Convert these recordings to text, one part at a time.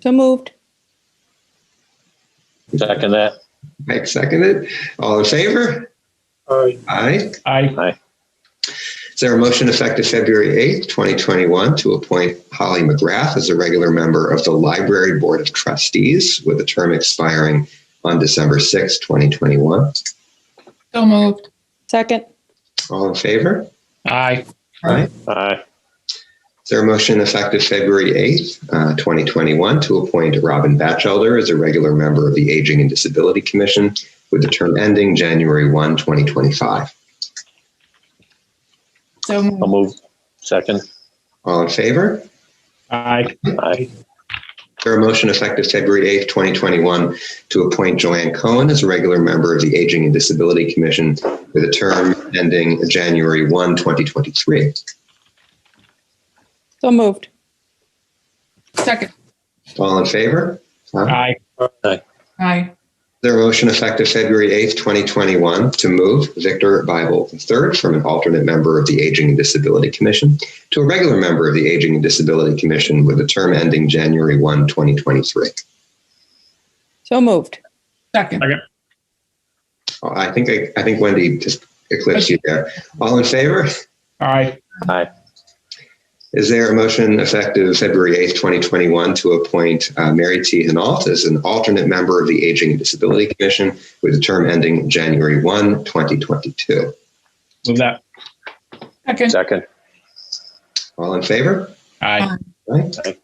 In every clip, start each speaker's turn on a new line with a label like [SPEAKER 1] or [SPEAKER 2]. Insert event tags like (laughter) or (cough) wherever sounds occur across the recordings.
[SPEAKER 1] So moved.
[SPEAKER 2] Second that.
[SPEAKER 3] Mike seconded. All in favor?
[SPEAKER 4] Aye.
[SPEAKER 3] Aye.
[SPEAKER 4] Aye.
[SPEAKER 3] Is there a motion effective February 8th, 2021 to appoint Holly McGrath as a regular member of the Library Board of Trustees with a term expiring on December 6th, 2021?
[SPEAKER 5] So moved.
[SPEAKER 1] Second.
[SPEAKER 3] All in favor?
[SPEAKER 4] Aye.
[SPEAKER 3] Aye.
[SPEAKER 2] Aye.
[SPEAKER 3] Is there a motion effective February 8th, uh, 2021 to appoint Robin Batchelder as a regular member of the Aging and Disability Commission with the term ending January 1, 2025?
[SPEAKER 5] So
[SPEAKER 2] I'll
[SPEAKER 5] moved.
[SPEAKER 2] move. Second.
[SPEAKER 3] All in favor?
[SPEAKER 4] Aye.
[SPEAKER 2] Aye.
[SPEAKER 3] Is there a motion effective February 8th, 2021 to appoint Joanne Cohen as a regular member of the Aging and Disability Commission with a term ending January 1, 2023?
[SPEAKER 1] So moved.
[SPEAKER 5] Second.
[SPEAKER 3] All in favor? Is
[SPEAKER 4] Aye.
[SPEAKER 5] Aye.
[SPEAKER 3] there a motion effective February 8th, 2021 to move Victor Bible III from an alternate member of the Aging and Disability Commission to a regular member of the Aging and Disability Commission with a term ending January 1, 2023?
[SPEAKER 1] So moved.
[SPEAKER 5] Second.
[SPEAKER 3] Oh, I think, I think Wendy just eclipsed you there. All in favor?
[SPEAKER 4] Aye.
[SPEAKER 3] Is there a motion effective February 8th, 2021 to appoint uh, Mary T. Hinault as an alternate member of the Aging and Disability Commission with a term ending January 1, 2022?
[SPEAKER 4] Move that.
[SPEAKER 5] Second.
[SPEAKER 2] Second.
[SPEAKER 3] All in favor?
[SPEAKER 4] Aye.
[SPEAKER 3] Aye.
[SPEAKER 2] Aye.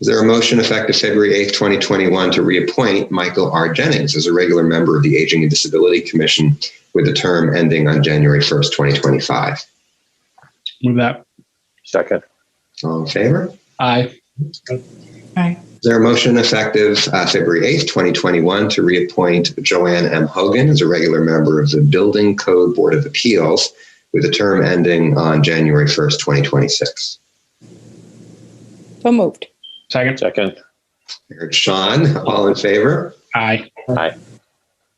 [SPEAKER 3] Is there a motion effective February 8th, 2021 to reappoint Michael R. Jennings as a regular member of the Aging and Disability Commission with a term ending on January 1st, 2025?
[SPEAKER 4] Move that.
[SPEAKER 2] Second.
[SPEAKER 3] All in favor?
[SPEAKER 4] Aye.
[SPEAKER 5] Aye.
[SPEAKER 3] Is there a motion effective uh, February 8th, 2021 to reappoint Joanne M. Hogan as a regular member of the Building Code Board of Appeals with a term ending on January 1st, 2026?
[SPEAKER 1] So moved.
[SPEAKER 4] Second.
[SPEAKER 2] Second.
[SPEAKER 3] Heard Sean, all in favor? Is
[SPEAKER 4] Aye.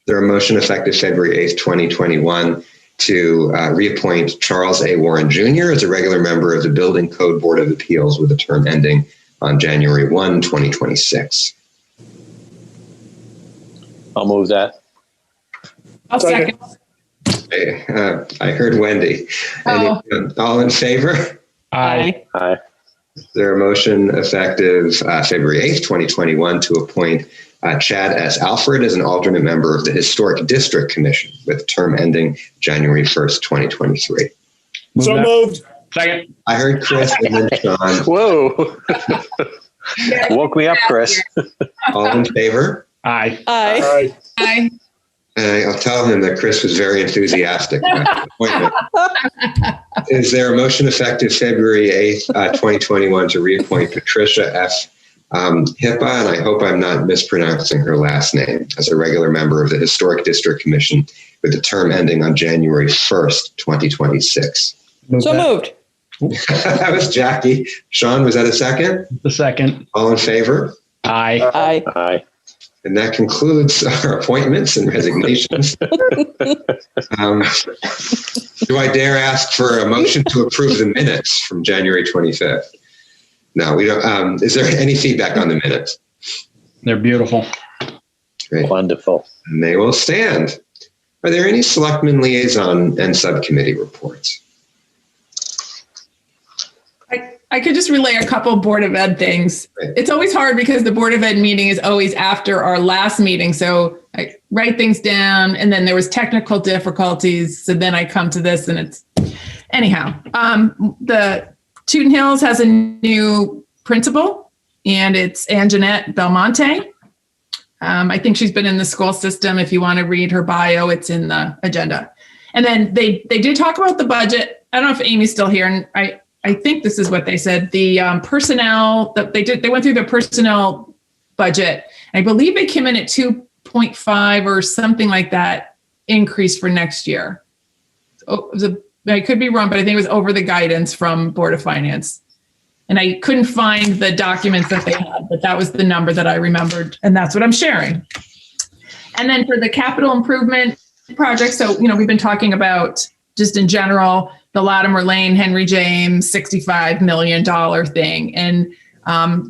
[SPEAKER 3] there a motion effective February 8th, 2021 to uh, reappoint Charles A. Warren Jr. as a regular member of the Building Code Board of Appeals with a term ending on January 1, 2026?
[SPEAKER 2] I'll move that.
[SPEAKER 5] I'll second.
[SPEAKER 3] Hey, uh, I heard Wendy. Any- um,
[SPEAKER 5] Oh.
[SPEAKER 3] All in favor?
[SPEAKER 4] Aye.
[SPEAKER 2] Aye.
[SPEAKER 3] There a motion effective uh, February 8th, 2021 to appoint uh, Chad S. Alfred as an alternate member of the Historic District Commission with term ending January 1st, 2023.
[SPEAKER 4] Move
[SPEAKER 6] So
[SPEAKER 4] that.
[SPEAKER 6] moved.
[SPEAKER 4] Second.
[SPEAKER 3] I heard Chris and then Sean.
[SPEAKER 2] Whoa. Woke me up, Chris.
[SPEAKER 3] All in favor?
[SPEAKER 4] Aye.
[SPEAKER 1] Aye.
[SPEAKER 6] Aye.
[SPEAKER 5] Aye.
[SPEAKER 3] Uh, I'll tell him that Chris was very enthusiastic about the appointment. Is there a motion effective February 8th, uh, 2021 to reappoint Patricia F. Um, Hippa, and I hope I'm not mispronouncing her last name, as a regular member of the Historic District Commission with a term ending on January 1st, 2026?
[SPEAKER 4] Move
[SPEAKER 1] So
[SPEAKER 4] that.
[SPEAKER 1] moved.
[SPEAKER 3] (laughs) that was Jackie. Sean, was that a second?
[SPEAKER 4] The second.
[SPEAKER 3] All in favor?
[SPEAKER 4] Aye.
[SPEAKER 1] Aye.
[SPEAKER 2] Aye.
[SPEAKER 3] And that concludes (laughs) our appointments and resignations. Um, Do I dare ask for a motion to approve the minutes from January 25th? No, we don't. um, Is there any feedback on the minutes?
[SPEAKER 4] They're beautiful.
[SPEAKER 2] Wonderful.
[SPEAKER 3] And they will stand. Are there any selectmen liaison and subcommittee reports?
[SPEAKER 5] I could just relay a couple Board of Ed things.
[SPEAKER 3] Right.
[SPEAKER 5] It's always hard because the Board of Ed meeting is always after our last meeting. So I write things down and then there was technical difficulties. So then I come to this and it's anyhow. Um, the Tooten Hills has a new principal and it's Anjanette Belmonte. Um, I think she's been in the school system. If you want to read her bio, it's in the agenda. And then they they did talk about the budget. I don't know if Amy's still here, and I I think this is what they said. The um, personnel that they did, they went through the personnel budget. I believe it came in at 2.5 or something like that increase for next year. Oh, it was a- I could be wrong, but I think it was over the guidance from Board of Finance. And I couldn't find the documents that they had, but that was the number that I remembered. And that's what I'm sharing. And then for the capital improvement project, so, you know, we've been talking about just in general, the Latimer Lane, Henry James, $65 million thing. And um,